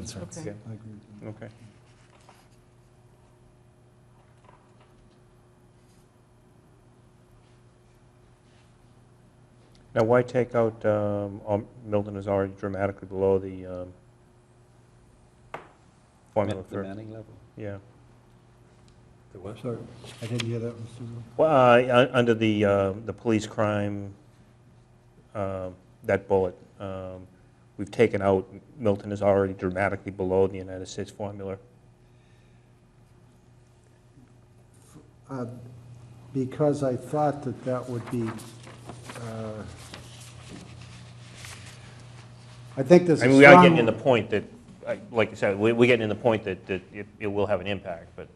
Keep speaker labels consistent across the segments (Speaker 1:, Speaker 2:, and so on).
Speaker 1: concerns.
Speaker 2: Okay.
Speaker 1: I agree.
Speaker 3: Okay. Now, why take out, um, um, Milton is already dramatically below the um, formula
Speaker 4: The
Speaker 3: for,
Speaker 4: Manning level.
Speaker 3: yeah.
Speaker 1: Sorry, I didn't hear that, Mr. Zoll.
Speaker 3: Well, uh, un- under the, uh, the police crime, um, that bullet, um, we've taken out, Milton is already dramatically below the United States formula.
Speaker 1: Uh, Because I thought that that would be, uh, I think there's
Speaker 3: I
Speaker 1: a
Speaker 3: mean, we are getting in
Speaker 1: strong,
Speaker 3: the point that, I- like I said, we- we're getting in the point that that it it will have an impact, but,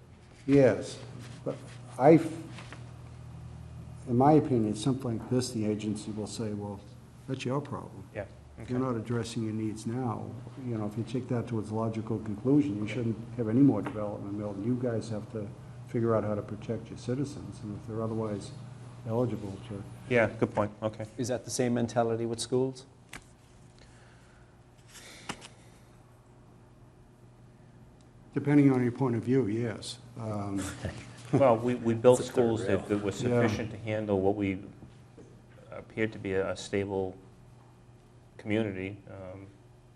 Speaker 1: yes, but I, f- in my opinion, something like this, the agency will say, well, that's your problem.
Speaker 3: yeah.
Speaker 1: If
Speaker 3: okay.
Speaker 1: you're not addressing your needs now, you know, if you take that to its logical conclusion, you shouldn't have any more development, Milton. You guys have to figure out how to protect your citizens, and if they're otherwise eligible to
Speaker 3: Yeah, good point, okay.
Speaker 4: Is that the same mentality with schools?
Speaker 1: Depending on your point of view, yes. Um,
Speaker 3: Well, we we built
Speaker 4: It's a third
Speaker 3: schools that that were
Speaker 1: Yeah.
Speaker 3: sufficient to handle what we appeared to be a a stable community, um,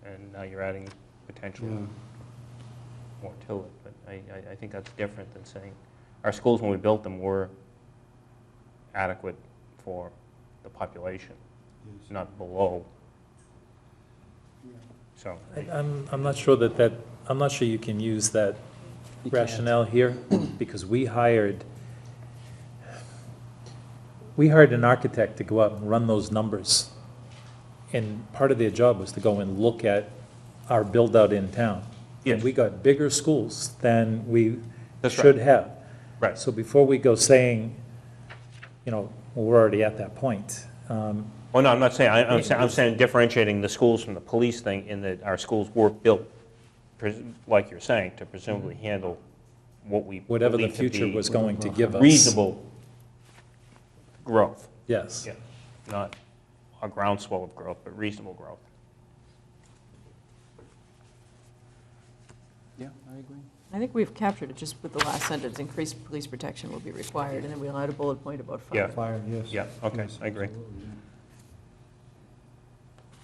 Speaker 3: and now you're adding potentially
Speaker 1: yeah.
Speaker 3: more to it, but I- I I think that's different than saying, our schools, when we built them, were adequate for the population, not below. So,
Speaker 5: I- I'm, I'm not sure that that, I'm not sure you can use that
Speaker 4: You can't.
Speaker 5: rationale here, because we hired, we hired an architect to go out and run those numbers. And part of their job was to go and look at our build-out in town. And
Speaker 3: Yes.
Speaker 5: we got bigger schools than we
Speaker 3: That's right.
Speaker 5: should have.
Speaker 3: Right.
Speaker 5: So before we go saying, you know, well, we're already at that point, um,
Speaker 3: well, no, I'm not saying, I- I'm saying, I'm saying differentiating the schools from the police thing in that our schools were built, pres- like you're saying, to presumably handle what we
Speaker 5: Mm-hmm. whatever the
Speaker 3: believe to
Speaker 5: future
Speaker 3: be
Speaker 5: was going to give us.
Speaker 3: Reasonable growth,
Speaker 5: Yes.
Speaker 3: yeah, not a groundswell of growth, but reasonable growth.
Speaker 4: Yeah, I agree.
Speaker 2: I think we've captured it just with the last sentence, increased police protection will be required, and then we allowed a bullet point about fire.
Speaker 3: Yeah.
Speaker 1: Fire, yes.
Speaker 3: Yeah, okay,
Speaker 1: Yes,
Speaker 3: I agree.
Speaker 1: absolutely,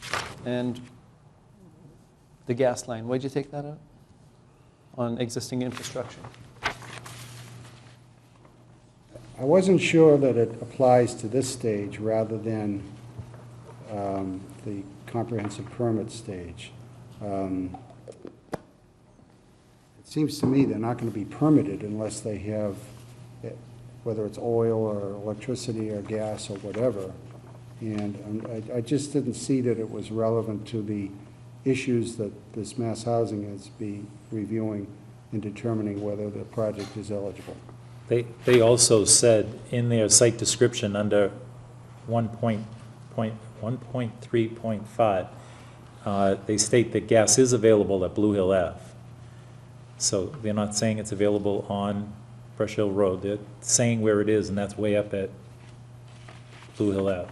Speaker 1: yeah.
Speaker 4: And the gas line, why'd you take that out? On existing infrastructure?
Speaker 1: I wasn't sure that it applies to this stage rather than um, the comprehensive permit stage. Um, It seems to me they're not going to be permitted unless they have, eh, whether it's oil or electricity or gas or whatever. And um, I- I just didn't see that it was relevant to the issues that this mass housing is be reviewing in determining whether the project is eligible.
Speaker 5: They, they also said in their site description under one point, point, one point three point five, uh, they state that gas is available at Blue Hill Ave. So they're not saying it's available on Brush Hill Road, they're saying where it is, and that's way up at Blue Hill Ave.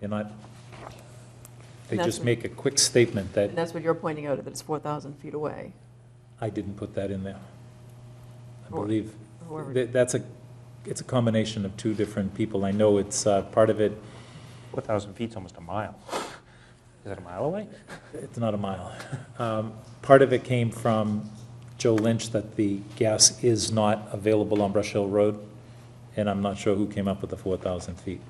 Speaker 5: They're not, they
Speaker 2: And that's
Speaker 5: just
Speaker 2: what-
Speaker 5: make a quick statement that
Speaker 2: And that's what you're pointing out, that it's 4,000 feet away.
Speaker 5: I didn't put that in there. I
Speaker 2: Or-
Speaker 5: believe,
Speaker 2: whoever-
Speaker 5: that- that's a, it's a combination of two different people. I know it's, uh, part of it,
Speaker 3: 4,000 feet's almost a mile. Is that a mile away?
Speaker 5: it's not a mile. Um, Part of it came from Joe Lynch that the gas is not available on Brush Hill Road, and I'm not sure who came up with the 4,000 feet.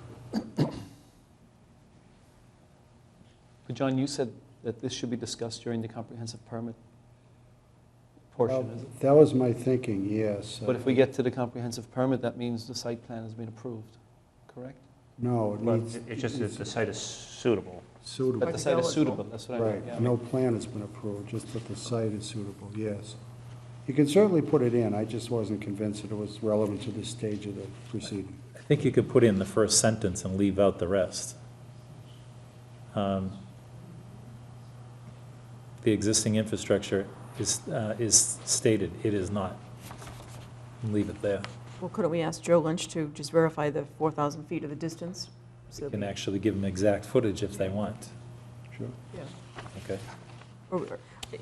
Speaker 4: But John, you said that this should be discussed during the comprehensive permit portion. is it?
Speaker 1: That was my thinking, yes. Uh,
Speaker 4: But if we get to the comprehensive permit, that means the site plan has been approved, correct?
Speaker 1: No, it
Speaker 3: Well,
Speaker 1: needs.
Speaker 3: it- It's just that the site is suitable.
Speaker 4: That
Speaker 1: Suitable,
Speaker 4: the site is
Speaker 2: Eligible.
Speaker 4: suitable, that's what I meant,
Speaker 1: right.
Speaker 4: uh, yeah.
Speaker 1: No plan has been approved, just that the site is suitable, yes. You can certainly put it in, I just wasn't convinced that it was relevant to this stage of the proceeding.
Speaker 5: I think you could put in the first sentence and leave out the rest. Um, The existing infrastructure is, uh, is stated, it is not. Leave it there.
Speaker 2: Well, couldn't we ask Joe Lynch to just verify the 4,000 feet of the distance? So
Speaker 5: You can
Speaker 2: that-
Speaker 5: actually give them exact footage if they want,
Speaker 1: Sure.
Speaker 2: yeah.
Speaker 5: okay?
Speaker 2: Or-